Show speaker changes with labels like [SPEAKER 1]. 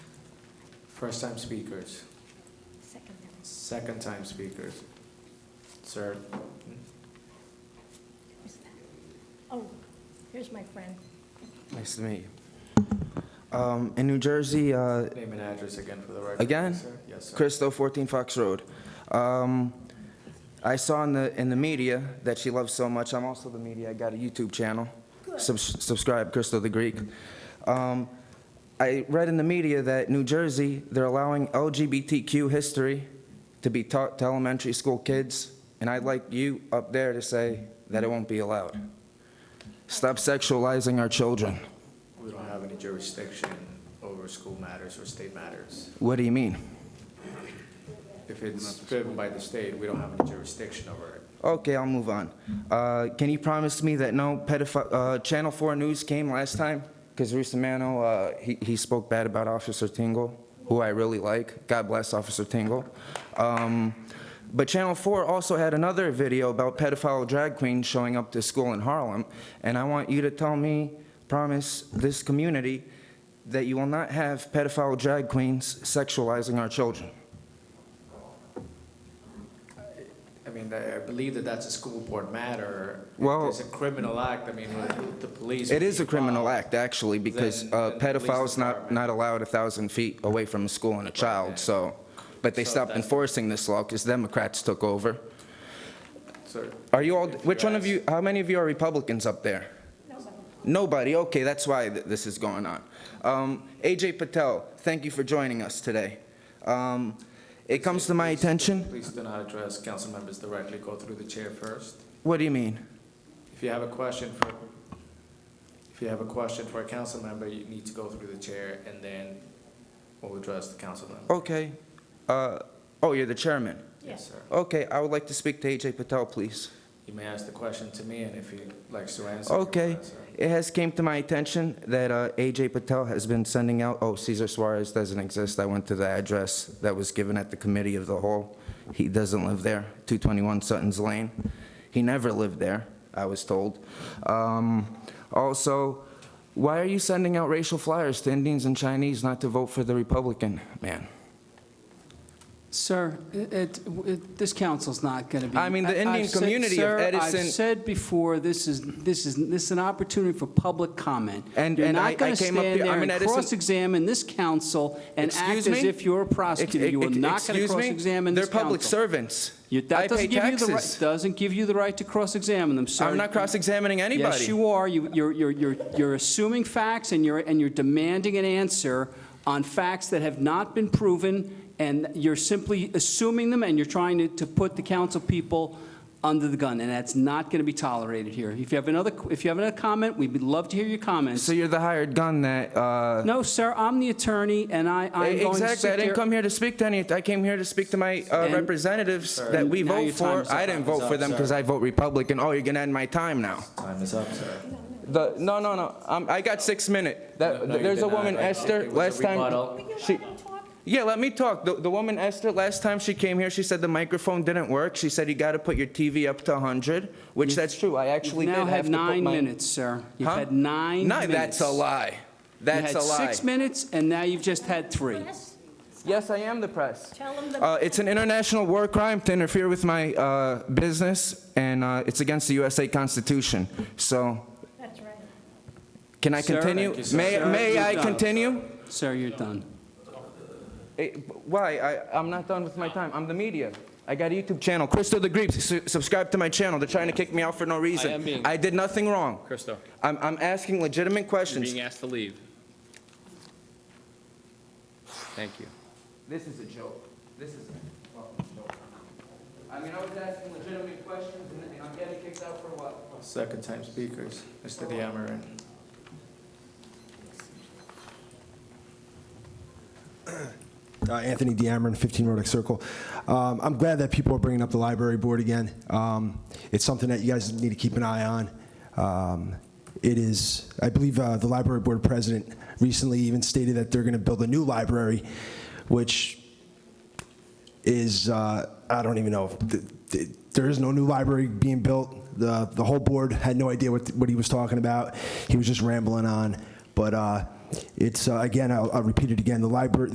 [SPEAKER 1] First-time speakers,
[SPEAKER 2] Second.
[SPEAKER 1] second-time speakers. Sir,
[SPEAKER 2] Who's that? Oh, here's my friend.
[SPEAKER 3] Nice to meet you. Um, in New Jersey, uh,
[SPEAKER 1] name and address again for the record.
[SPEAKER 3] Again?
[SPEAKER 1] sir. Yes, sir.
[SPEAKER 3] Cristo, 14 Fox Road. Um, I saw in the, in the media that she loves so much. I'm also the media. I got a YouTube channel. Subs- Subscribe, Cristo the Greek. Um, I read in the media that New Jersey, they're allowing LGBTQ history to be taught to elementary school kids, and I'd like you up there to say that it won't be allowed. Stop sexualizing our children.
[SPEAKER 1] We don't have any jurisdiction over school matters or state matters.
[SPEAKER 3] What do you mean?
[SPEAKER 1] If it's driven by the state, we don't have any jurisdiction over it.
[SPEAKER 3] Okay, I'll move on. Uh, Can you promise me that no pedophile, uh, Channel 4 News came last time? Because Rustamano, uh, he he spoke bad about Officer Tingle, who I really like. God bless Officer Tingle. Um, But Channel 4 also had another video about pedophile drag queens showing up to school in Harlem, and I want you to tell me, promise this community, that you will not have pedophile drag queens sexualizing our children.
[SPEAKER 1] I mean, I I believe that that's a school board matter. If
[SPEAKER 3] Well-
[SPEAKER 1] It's a criminal act, I mean, with the police.
[SPEAKER 3] It is a criminal
[SPEAKER 1] involved,
[SPEAKER 3] act, actually, because
[SPEAKER 1] Then-
[SPEAKER 3] uh,
[SPEAKER 1] then the police
[SPEAKER 3] pedophiles not,
[SPEAKER 1] department-
[SPEAKER 3] not allowed a 1,000 feet away from a school and a child, so, but they
[SPEAKER 1] So
[SPEAKER 3] stopped
[SPEAKER 1] that-
[SPEAKER 3] enforcing this law because Democrats took over.
[SPEAKER 1] sir,
[SPEAKER 3] Are you all,
[SPEAKER 1] If
[SPEAKER 3] which
[SPEAKER 1] you
[SPEAKER 3] one of you, how many of you are Republicans up there? Nobody, okay, that's why th- this is going on. Um, AJ Patel, thank you for joining us today. Um, It comes to my attention,
[SPEAKER 1] Please do not address council members directly. Go through the chair first.
[SPEAKER 3] what do you mean?
[SPEAKER 1] If you have a question for, if you have a question for a council member, you need to go through the chair and then we'll address the council member.
[SPEAKER 3] Okay, uh, oh, you're the chairman.
[SPEAKER 1] Yes, sir.
[SPEAKER 3] Okay, I would like to speak to AJ Patel, please.
[SPEAKER 1] You may ask the question to me and if he likes to answer. he will
[SPEAKER 3] Okay,
[SPEAKER 1] answer.
[SPEAKER 3] it has came to my attention that uh, AJ Patel has been sending out, oh, Cesar Suarez doesn't exist, I went to the address that was given at the committee of the whole. He doesn't live there, 221 Sutton's Lane. He never lived there, I was told. Um, Also, why are you sending out racial flyers to Indians and Chinese not to vote for the Republican man?
[SPEAKER 4] Sir, it- it, it, this council's not going to be.
[SPEAKER 3] I mean, the Indian
[SPEAKER 4] I've said-
[SPEAKER 3] community of
[SPEAKER 4] Sir,
[SPEAKER 3] Edison-
[SPEAKER 4] I've said before, this is, this is, this is an opportunity for public comment.
[SPEAKER 3] And-
[SPEAKER 4] You're
[SPEAKER 3] and I-
[SPEAKER 4] not
[SPEAKER 3] I
[SPEAKER 4] going to
[SPEAKER 3] came up
[SPEAKER 4] stand
[SPEAKER 3] here-
[SPEAKER 4] there
[SPEAKER 3] I'm an
[SPEAKER 4] and
[SPEAKER 3] Edison-
[SPEAKER 4] cross-examine this council and act
[SPEAKER 3] Excuse
[SPEAKER 4] as
[SPEAKER 3] me?
[SPEAKER 4] if you're a prosecutor.
[SPEAKER 3] Ex-
[SPEAKER 4] You are
[SPEAKER 3] ex-
[SPEAKER 4] not going to
[SPEAKER 3] excuse me?
[SPEAKER 4] cross-examine this council.
[SPEAKER 3] They're public servants.
[SPEAKER 4] You-
[SPEAKER 3] I
[SPEAKER 4] That
[SPEAKER 3] pay
[SPEAKER 4] doesn't give you the right,
[SPEAKER 3] taxes.
[SPEAKER 4] doesn't give you the right to cross-examine them, sir.
[SPEAKER 3] I'm not cross-examining anybody.
[SPEAKER 4] Yes, you are. You- You're, you're, you're, you're assuming facts and you're, and you're demanding an answer on facts that have not been proven, and you're simply assuming them, and you're trying to, to put the council people under the gun, and that's not going to be tolerated here. If you have another, if you have another comment, we'd love to hear your comments.
[SPEAKER 3] So you're the hired gun that, uh,
[SPEAKER 4] No, sir, I'm the attorney, and I, I'm going to sit
[SPEAKER 3] Exactly, I didn't
[SPEAKER 4] there-
[SPEAKER 3] come here to speak to any, I came here to speak to my uh,
[SPEAKER 4] And-
[SPEAKER 3] representatives that we
[SPEAKER 4] Now
[SPEAKER 3] vote
[SPEAKER 4] your time
[SPEAKER 3] for.
[SPEAKER 4] is up.
[SPEAKER 3] I didn't vote for them because I vote Republican. Oh, you're gonna end my time now.
[SPEAKER 1] Time is up, sir.
[SPEAKER 3] The, no, no, no, um, I got six minute.
[SPEAKER 1] No,
[SPEAKER 3] That,
[SPEAKER 1] no, you
[SPEAKER 3] there's
[SPEAKER 1] did
[SPEAKER 3] a woman,
[SPEAKER 1] not. It
[SPEAKER 3] Esther,
[SPEAKER 1] was a
[SPEAKER 3] last time.
[SPEAKER 1] rebuttal.
[SPEAKER 2] Will you
[SPEAKER 3] She-
[SPEAKER 2] let me talk?
[SPEAKER 3] Yeah, let me talk. The, the woman, Esther, last time she came here, she said the microphone didn't work. She said you gotta put your TV up to hundred, which that's true. I actually did
[SPEAKER 4] Now
[SPEAKER 3] have to
[SPEAKER 4] have
[SPEAKER 3] put
[SPEAKER 4] nine
[SPEAKER 3] my-
[SPEAKER 4] minutes, sir. You've
[SPEAKER 3] Huh?
[SPEAKER 4] had nine
[SPEAKER 3] No,
[SPEAKER 4] minutes.
[SPEAKER 3] that's a lie. That's a
[SPEAKER 4] You had
[SPEAKER 3] lie.
[SPEAKER 4] six minutes, and now you've just had three.
[SPEAKER 2] Yes,
[SPEAKER 3] Yes, I am the press.
[SPEAKER 2] tell them
[SPEAKER 3] Uh,
[SPEAKER 2] the,
[SPEAKER 3] it's an international war crime to interfere with my uh, business, and uh, it's against the USA Constitution. So,
[SPEAKER 2] that's right.
[SPEAKER 3] can I
[SPEAKER 4] Sir,
[SPEAKER 3] continue?
[SPEAKER 4] thank you, sir.
[SPEAKER 3] May,
[SPEAKER 4] Sir,
[SPEAKER 3] may
[SPEAKER 4] you're
[SPEAKER 3] I
[SPEAKER 4] done.
[SPEAKER 3] continue?
[SPEAKER 4] Sir, you're done.
[SPEAKER 3] Eh, why? I, I'm not done with my time. I'm the media. I got a YouTube channel, Christo the Greek. Su- subscribe to my channel. They're trying to kick me out for no reason.
[SPEAKER 5] am being-
[SPEAKER 3] I did nothing wrong.
[SPEAKER 5] Christo,
[SPEAKER 3] I'm, I'm asking legitimate
[SPEAKER 5] you're
[SPEAKER 3] questions.
[SPEAKER 5] being asked to leave. Thank you.
[SPEAKER 3] This is a joke. This is a fucking joke. I mean, I was asking legitimate questions, and and I'm getting kicked out for what?
[SPEAKER 1] Second time speakers, Mr. Diamarin.
[SPEAKER 6] Uh, Anthony Diamond, 15 Rodick Circle. Um, I'm glad that people are bringing up the library board again. Um, It's something that you guys need to keep an eye on. Um, It is, I believe uh, the library board president recently even stated that they're going to build a new library, which is, uh, I don't even know, if th- th- there is no new library being built. The, the whole board had no idea what, what he was talking about. He was just rambling on. But uh, it's, uh, again, I'll I'll repeat it again, the library,